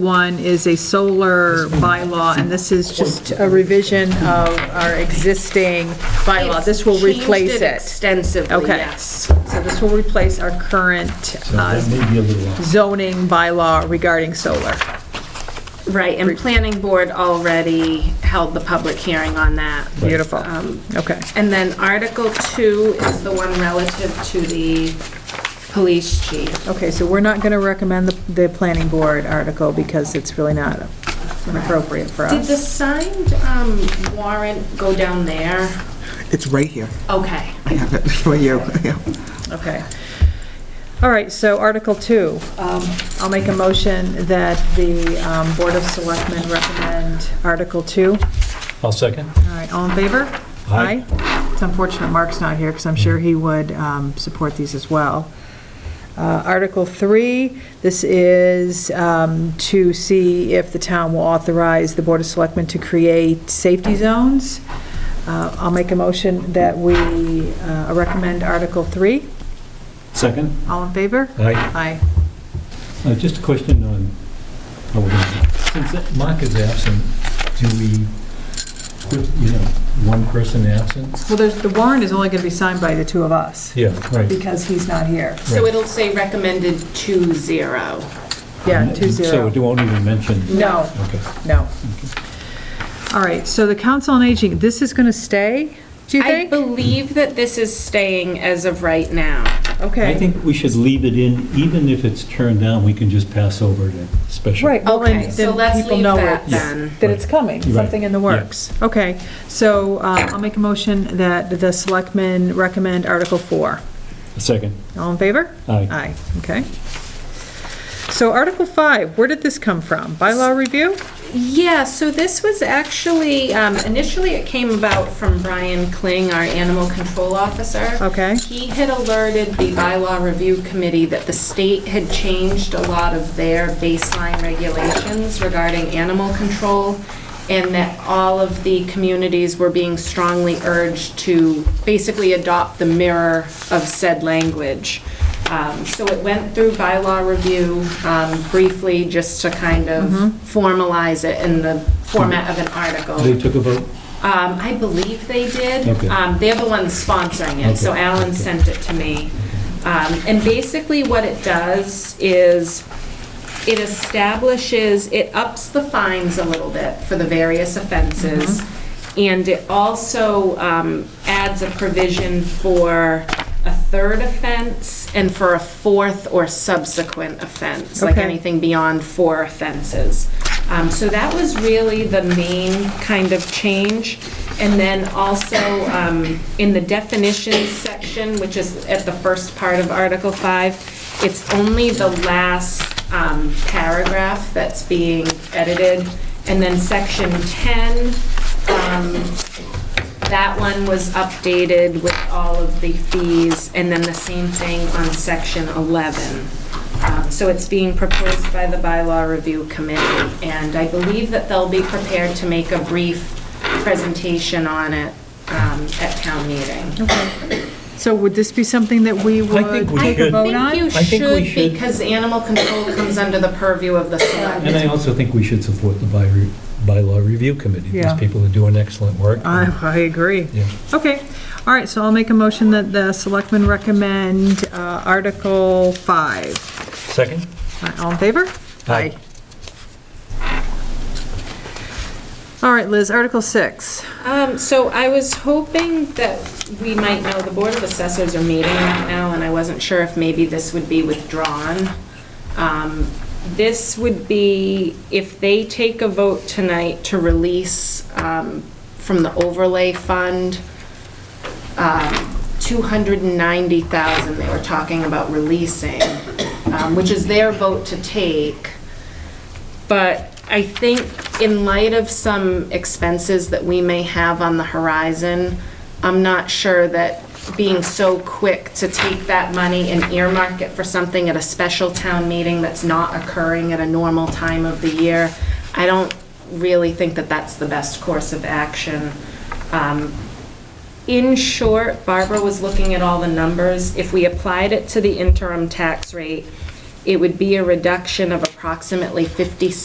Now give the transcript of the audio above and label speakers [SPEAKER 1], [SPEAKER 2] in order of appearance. [SPEAKER 1] One is a solar bylaw, and this is just a revision of our existing bylaw. This will
[SPEAKER 2] Changed
[SPEAKER 1] replace it.
[SPEAKER 2] Extensively,
[SPEAKER 1] Okay.
[SPEAKER 2] yes.
[SPEAKER 1] So this will replace our current
[SPEAKER 3] So
[SPEAKER 1] uh,
[SPEAKER 3] that may be a little off.
[SPEAKER 1] zoning bylaw regarding solar.
[SPEAKER 2] Right, and planning board already held the public hearing on that.
[SPEAKER 1] Beautiful.
[SPEAKER 2] Um,
[SPEAKER 1] Okay.
[SPEAKER 2] And then Article 2 is the one relative to the police chief.
[SPEAKER 1] Okay, so we're not going to recommend the, the planning board article because it's really not appropriate for
[SPEAKER 2] Did the
[SPEAKER 1] us.
[SPEAKER 2] signed um, warrant go down there?
[SPEAKER 4] It's right here.
[SPEAKER 2] Okay.
[SPEAKER 4] I have it for you. Yeah.
[SPEAKER 1] Okay. All right, so Article 2. Um, I'll make a motion that the um, Board of Selectmen recommend Article 2.
[SPEAKER 3] I'll second.
[SPEAKER 1] All right, all in favor?
[SPEAKER 3] Aye.
[SPEAKER 1] It's unfortunate Mark's not here, because I'm sure he would um, support these as well. Uh, Article 3, this is um, to see if the town will authorize the Board of Selectmen to create safety zones. Uh, I'll make a motion that we uh, recommend Article 3.
[SPEAKER 3] Second?
[SPEAKER 1] All in favor?
[SPEAKER 3] Aye.
[SPEAKER 1] Aye.
[SPEAKER 3] Uh, Just a question on, oh, we're gonna- since that Mark is absent, do we, put, you know, one person absent?
[SPEAKER 1] Well, there's, the warrant is only going to be signed by the two of us,
[SPEAKER 3] Yeah, right.
[SPEAKER 1] because he's not here.
[SPEAKER 2] So it'll say recommended 2-0.
[SPEAKER 1] Yeah, two
[SPEAKER 3] Mm-hmm. So
[SPEAKER 1] zero.
[SPEAKER 3] it won't even mention,
[SPEAKER 1] No.
[SPEAKER 3] okay.
[SPEAKER 1] No. All right, so the Council on Aging, this is going to stay, do you
[SPEAKER 2] I
[SPEAKER 1] think?
[SPEAKER 2] believe that this is staying as of right now.
[SPEAKER 3] I
[SPEAKER 1] Okay.
[SPEAKER 3] think we should leave it in, even if it's turned down, we can just pass over to special.
[SPEAKER 1] Right, well,
[SPEAKER 2] Okay,
[SPEAKER 1] then
[SPEAKER 2] so
[SPEAKER 1] then
[SPEAKER 2] let's
[SPEAKER 1] people
[SPEAKER 2] leave
[SPEAKER 1] know
[SPEAKER 2] that
[SPEAKER 1] it,
[SPEAKER 2] then.
[SPEAKER 1] that it's coming,
[SPEAKER 3] Right.
[SPEAKER 1] something in the works. Okay, so uh, I'll make a motion that the Selectmen recommend Article 4.
[SPEAKER 3] Second.
[SPEAKER 1] All in favor?
[SPEAKER 3] Aye.
[SPEAKER 1] Aye, okay. So Article 5, where did this come from? Bylaw review?
[SPEAKER 2] Yeah, so this was actually, um, initially it came about from Brian Kling, our animal control officer.
[SPEAKER 1] Okay.
[SPEAKER 2] He had alerted the bylaw review committee that the state had changed a lot of their baseline regulations regarding animal control, and that all of the communities were being strongly urged to basically adopt the mirror of said language. Um, So it went through bylaw review um, briefly, just to kind of formalize it in the format of an article.
[SPEAKER 3] They took a vote?
[SPEAKER 2] Um, I believe they did.
[SPEAKER 3] Okay.
[SPEAKER 2] Um, they're the ones sponsoring it, so
[SPEAKER 3] Okay.
[SPEAKER 2] Alan sent it to me. Um, and basically what it does is it establishes, it ups the fines a little bit for the various offenses.
[SPEAKER 3] Mm-hmm.
[SPEAKER 2] And it also, um, adds a provision for a third offense and for a fourth or subsequent offense, like
[SPEAKER 1] Okay.
[SPEAKER 2] anything anything beyond four offenses. Um, So that was really the main kind of change. And then also, um, in the definitions section, which is at the first part of Article 5, it's only the last um, paragraph that's being edited. And then Section 10, um, that one was updated with all of the fees, and then the same thing on section 11. Um, So it's being proposed by the bylaw review committee, and I believe that they'll be prepared to make a brief presentation on it um, at town meeting.
[SPEAKER 1] So would this be something that we
[SPEAKER 3] I
[SPEAKER 1] would
[SPEAKER 3] think we
[SPEAKER 1] take a
[SPEAKER 3] should.
[SPEAKER 1] vote on?
[SPEAKER 2] I
[SPEAKER 3] I
[SPEAKER 2] think
[SPEAKER 3] think we
[SPEAKER 2] you should,
[SPEAKER 3] should.
[SPEAKER 2] because animal control comes under the purview of the select.
[SPEAKER 3] And I also think we should support the by- bylaw review committee.
[SPEAKER 1] Yeah.
[SPEAKER 3] These people are doing excellent work.
[SPEAKER 1] I, I agree.
[SPEAKER 3] Yeah.
[SPEAKER 1] Okay, all right, so I'll make a motion that the selectmen recommend uh, Article 5.
[SPEAKER 3] Second?
[SPEAKER 1] All right, All in favor?
[SPEAKER 3] Aye.
[SPEAKER 1] All right, Liz, Article 6.
[SPEAKER 2] Um, so I was hoping that we might know, the Board of Assessors are meeting right now, and I wasn't sure if maybe this would be withdrawn. Um, This would be if they take a vote tonight to release um, from the overlay fund, um, 290,000 they were talking about releasing, um, which is their vote to take. But I think in light of some expenses that we may have on the horizon, I'm not sure that being so quick to take that money and earmark it for something at a special town meeting that's not occurring at a normal time of the year, I don't really think that that's the best course of action. Um, in short, Barbara was looking at all the numbers. If we applied it to the interim tax rate, it would be a reduction of approximately 56.